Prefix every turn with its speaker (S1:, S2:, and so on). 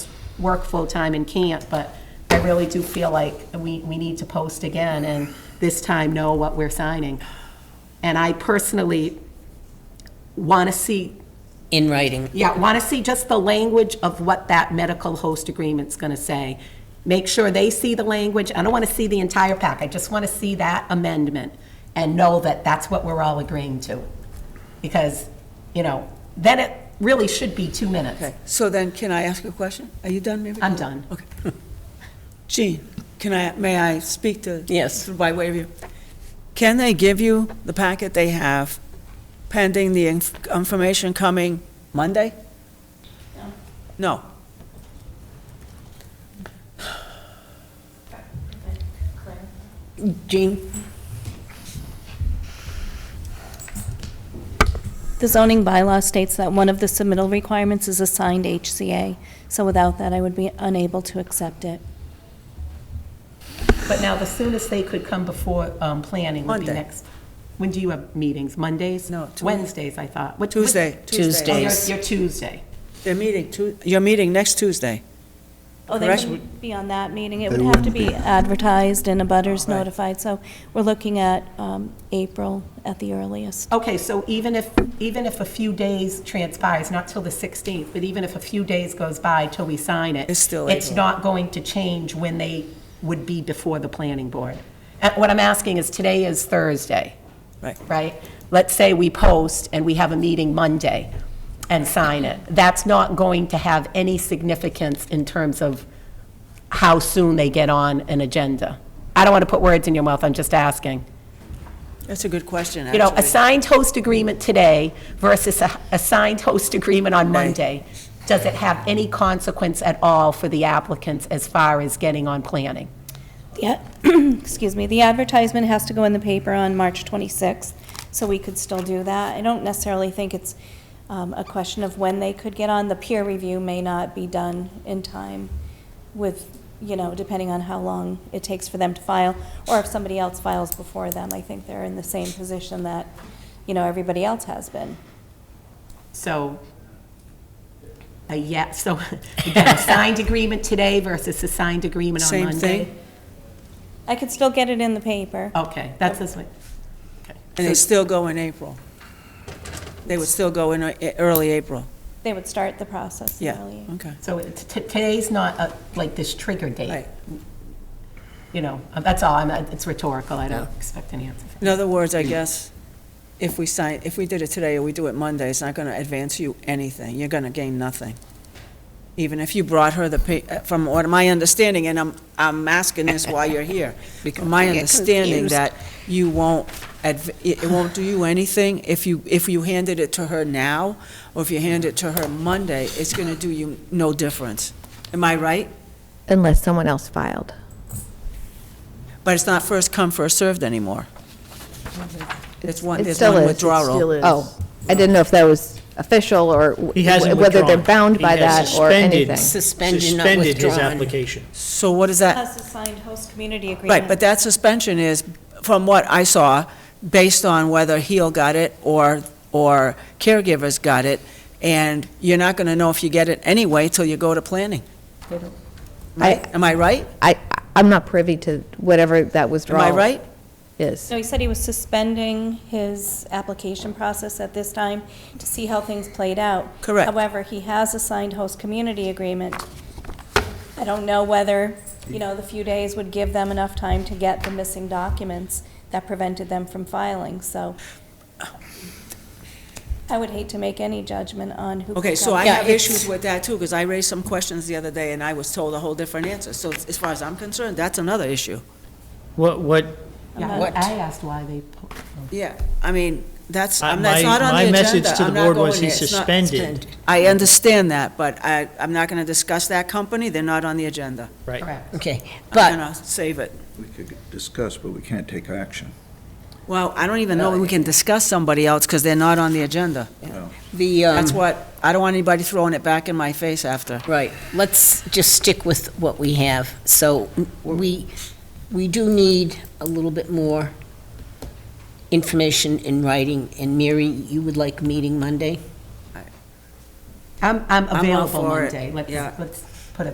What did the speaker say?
S1: work full-time and can't, but I really do feel like we, we need to post again and this time know what we're signing. And I personally want to see
S2: in writing.
S1: yeah, want to see just the language of what that medical host agreement's going to say. Make sure they see the language. I don't want to see the entire pack. I just want to see that amendment and know that that's what we're all agreeing to. Because, you know, then it really should be two minutes.
S3: Okay, so then, can I ask you a question? Are you done, maybe?
S1: I'm done.
S3: Okay. Jean, can I, may I speak to?
S2: Yes.
S3: By way of you. Can they give you the packet they have pending the inf- information coming Monday? No.
S2: Jean?
S4: The zoning bylaw states that one of the submittal requirements is a signed HCA, so without that, I would be unable to accept it.
S1: But now, the soonest they could come before um, planning would be
S3: Monday.
S1: next. When do you have meetings? Mondays?
S3: No, Tuesday.
S1: Wednesdays, I thought. What- what-
S3: Tuesday.
S1: Oh,
S2: Tuesday.
S1: your your Tuesday.
S3: Their meeting, Tu- your meeting next Tuesday.
S4: Oh, they
S3: Correct.
S4: wouldn't be on that meeting, it
S5: They
S4: would have to
S5: wouldn't
S4: be advertised and a butters
S3: Right.
S4: notified, so we're looking at um, April at the earliest.
S1: Okay, so even if, even if a few days transpires, not till the 16th, but even if a few days goes by till we sign it.
S3: It's still
S1: It's
S3: April.
S1: not going to change when they would be before the planning board. And what I'm asking is, today is Thursday.
S3: Right.
S1: Right? Let's say we post and we have a meeting Monday and sign it. That's not going to have any significance in terms of how soon they get on an agenda. I don't want to put words in your mouth, I'm just asking.
S3: That's a good question,
S1: You
S3: actually.
S1: know, a signed host agreement today versus a, a signed host agreement on Monday, does it have any consequence at all for the applicants as far as getting on planning?
S4: Yeah, excuse me, the advertisement has to go in the paper on March 26th, so we could still do that. I don't necessarily think it's um, a question of when they could get on. The peer review may not be done in time with, you know, depending on how long it takes for them to file, or if somebody else files before them. I think they're in the same position that, you know, everybody else has been.
S1: So, a yeah, so again, a signed agreement today versus a signed agreement on
S3: Same
S1: Monday?
S3: thing.
S4: I could still get it in the paper.
S1: Okay, that's this one.
S3: And they still go in April. They would still go in uh, early April.
S4: They would start the process
S3: Yeah,
S4: early.
S3: okay.
S1: So it- t- today's not a- like this trigger date,
S3: Right.
S1: you know, that's all, I'm, it's rhetorical, I don't expect an answer.
S3: In other words, I guess, if we sign, if we did it today or we do it Monday, it's not going to advance you anything. You're going to gain nothing. Even if you brought her the, pa- uh, from what my understanding, and I'm, I'm asking this while you're here, from my
S2: Because we get
S3: understanding
S2: confused.
S3: that you won't, adv- it it won't do you anything if you, if you handed it to her now, or if you hand it to her Monday, it's going to do you no difference. Am I right?
S6: unless someone else filed.
S3: But it's not first come, first served anymore. There's one,
S6: Mm-hmm. It
S3: there's
S6: still
S3: one
S6: is.
S3: withdrawal.
S6: Oh, I didn't know if that was official or w-
S7: He hasn't
S6: whether they're
S7: withdrawn.
S6: bound
S7: He
S6: by
S7: has
S6: that or
S7: suspended-
S6: anything.
S2: Suspended, not
S7: Suspended his
S2: withdrawn.
S7: application.
S3: So what is that?
S4: Plus a signed host community agreement.
S3: Right, but that suspension is, from what I saw, based on whether Heal got it or, or caregivers got it, and you're not going to know if you get it anyway till you go to planning. Right? Am I right?
S6: I, I'm not privy to whatever that
S3: Am
S6: withdrawal
S3: I right?
S6: is.
S4: So he said he was suspending his application process at this time to see how things played out.
S3: Correct.
S4: However, he has a signed host community agreement. I don't know whether, you know, the few days would give them enough time to get the missing documents that prevented them from filing, so I would hate to make any judgment on who.
S3: Okay,
S4: could
S3: so
S4: go.
S3: I
S2: Yeah,
S3: have
S2: it's-
S3: issues with that too, because I raised some questions the other day and I was told a whole different answer. So as far as I'm concerned, that's another issue.
S7: What, what,
S3: Um,
S1: Yeah,
S2: What?
S1: I I asked why they, oh, po-
S3: Yeah, I mean, that's,
S7: I-
S3: I'm- that's
S7: my-
S3: not on the
S7: my
S3: agenda.
S7: message to the
S3: I'm not
S7: board was
S3: going
S7: he
S3: there. It's not-
S7: suspended.
S3: I understand that, but I, I'm not going to discuss that company. They're not on the agenda.
S7: right?
S1: correct.
S2: Okay,
S3: I'm
S2: but
S3: going to save it.
S5: We could discuss, but we can't take action.
S3: Well, I don't even know
S2: Uh,
S3: we can discuss somebody else because they're not on the agenda.
S2: the,
S3: That's
S2: um,
S3: what, I don't want anybody throwing it back in my face after.
S2: right, let's just stick with what we have. So we, we do need a little bit more information in writing. And Mary, you would like meeting Monday?
S1: I'm, I'm
S3: I'm all
S1: available
S3: for it.
S1: Monday. Let's,
S3: Yeah.
S1: let's